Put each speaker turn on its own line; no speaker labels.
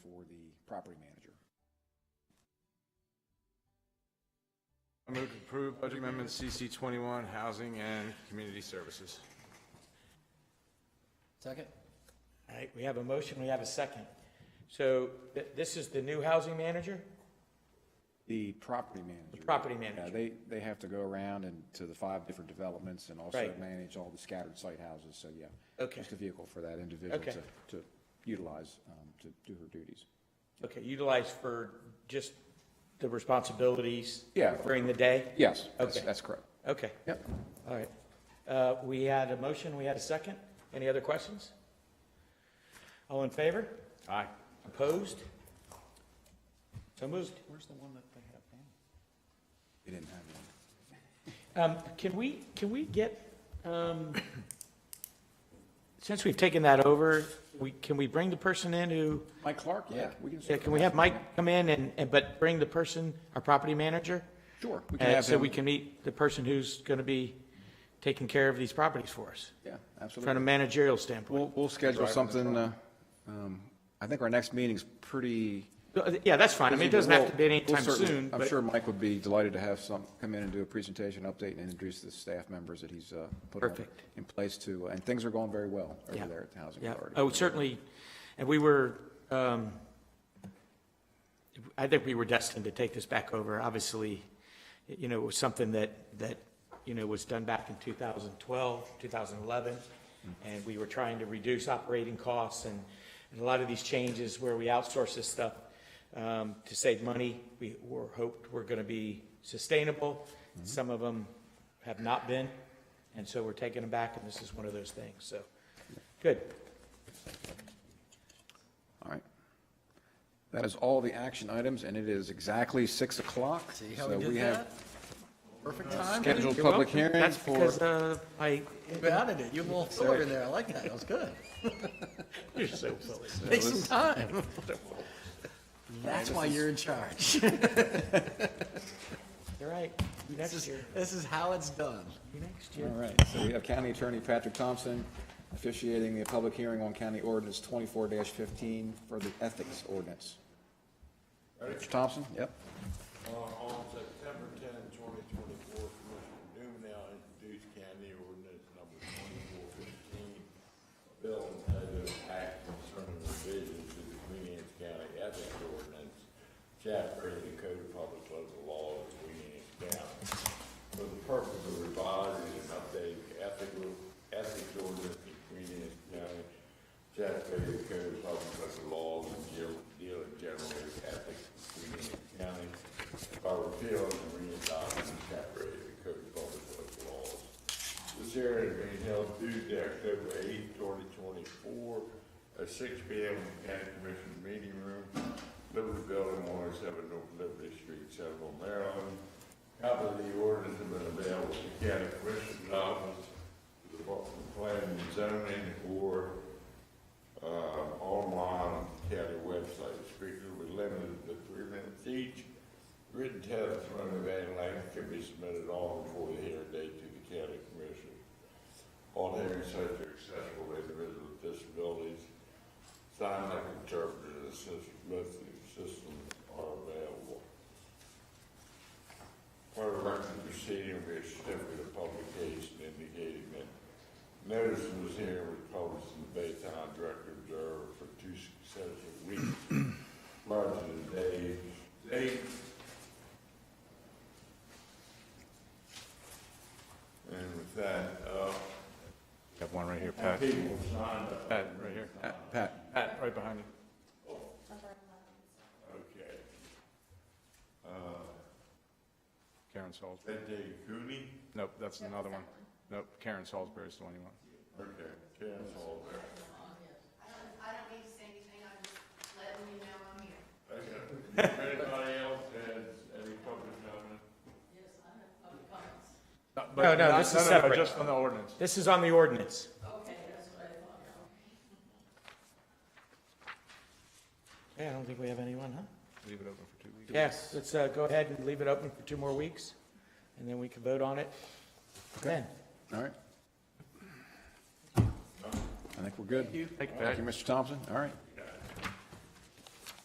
property manager.
I move to approve budget amendment CC 21, Housing and Community Services.
Second?
All right, we have a motion, we have a second. So th- this is the new housing manager?
The property manager.
property
Yeah,
manager.
they, they have to go around and to the five different developments and also
Right.
manage all the scattered site houses, so yeah.
Okay.
Just a vehicle for that individual
Okay.
to, to utilize, um, to do her duties.
Okay, utilized for just the responsibilities?
Yeah.
During the day?
Yes, that's,
Okay.
that's correct.
Okay,
Yep.
all right. Uh, We had a motion, we had a second. Any other questions? All in favor?
Aye.
Opposed? So moved.
Where's the one that they have now?
It didn't have one.
Um, Can we, can we get, um, since we've taken that over, we, can we bring the person in who,
Mike Clark, yeah, we can.
yeah, can we have Mike come in and, and but bring the person, our property manager?
Sure, we can
And
have
so
him,
we can meet the person who's going to be taking care of these properties for us,
yeah,
from a
absolutely.
managerial standpoint.
We'll, we'll schedule something, uh, um, I think our next meeting's pretty.
Yeah, that's fine. I mean, it doesn't have to be
We'll- we'll
anytime
certainly-
soon,
I'm
but,
sure Mike would be delighted to have some, come in and do a presentation, update, and introduce the staff members that he's uh, put on-
Perfect.
in place to, uh, and things are going very well
Yeah.
over there at the Housing
yeah.
Authority.
Oh, certainly, and we were, um, I think we were destined to take this back over. Obviously, you know, it was something that, that, you know, was done back in 2012, 2011,
Mm-hmm.
and we were trying to reduce operating costs and, and a lot of these changes where we outsource this stuff um, to save money, we were hoped were going to be sustainable.
Mm-hmm.
Some of them have not been, and so we're taking them back, and this is one of those things, so, good.
All right. That is all the action items, and it is exactly 6 o'clock.
See how
so
we did
have
that? Perfect time.
Scheduled
You're
public
welcome.
hearing
That's
for,
because, uh, I,
You bounded it. You little sword in there. I like that. That was good.
you're so silly.
Take some time. That's why you're in charge.
You're right.
This
Next
is,
year,
this is how it's done.
next
all
year.
right, so we have County Attorney Patrick Thompson officiating the public hearing on County Ordinance 24-15 for the Ethics Ordinance. Mr. Thompson, yep.
Uh, On September 10, 2024, Commissioner Dumel introduced County Ordinance Number 2415, a bill entitled Act Concerning Revisions to the Queen Anne's County Ethics Ordinance, Chapter of the Code of Public Local Law of Queen Anne's County, for the purpose of revising and updating the ethical, ethics ordinance in Queen Anne's County, Chapter of the Code of Public Local Law and deal- dealing generally with ethics in Queen Anne's County, by repealing and re-adopting chapter eight of the Code of Public Works Laws. This hearing is being held Tuesday, October eighth, twenty twenty-four, at six P M. in the County Commission Meeting Room, Liberty Building, one oh seven North Liberty Street, Central Maryland. Copy of the ordinance has been available to the County Commission's Office, the Department of Planning and Zoning, or uh, online county website. Speakers will be limited to three minutes each. Written testimony of any length can be submitted on before the hearing date to the county commission. All hearing sites are accessible to individuals with disabilities. Sign language interpreters and assistive method systems are available. Part of the record of the proceeding will be a certificate of publication indicating that Notice was here was published in the Baytown Director Observer for two successive weeks, March of the day, date. And with that, uh,
Have one right here, Pat.
people signed up.
Pat, right here.
Pat?
Pat, right behind you.
Okay.
Karen Salisbury.
That day, Cooney?
Nope, that's another one. Nope, Karen Salisbury's the one you want.
Okay, Ken's all there.
I don't need to say anything, I'm just letting you know I'm here.
Okay. If anybody else has any public comment?
No, no, this is separate.
Just on the ordinance.
This is on the ordinance. Okay, that's what I thought. Yeah, I don't think we have anyone, huh?
Leave it open for two weeks.
Yes, let's uh, go ahead and leave it open for two more weeks, and then we can vote on it then.
All right. I think we're good.
Thank you,
Thank
Pat.
you, Mr. Thompson. All right.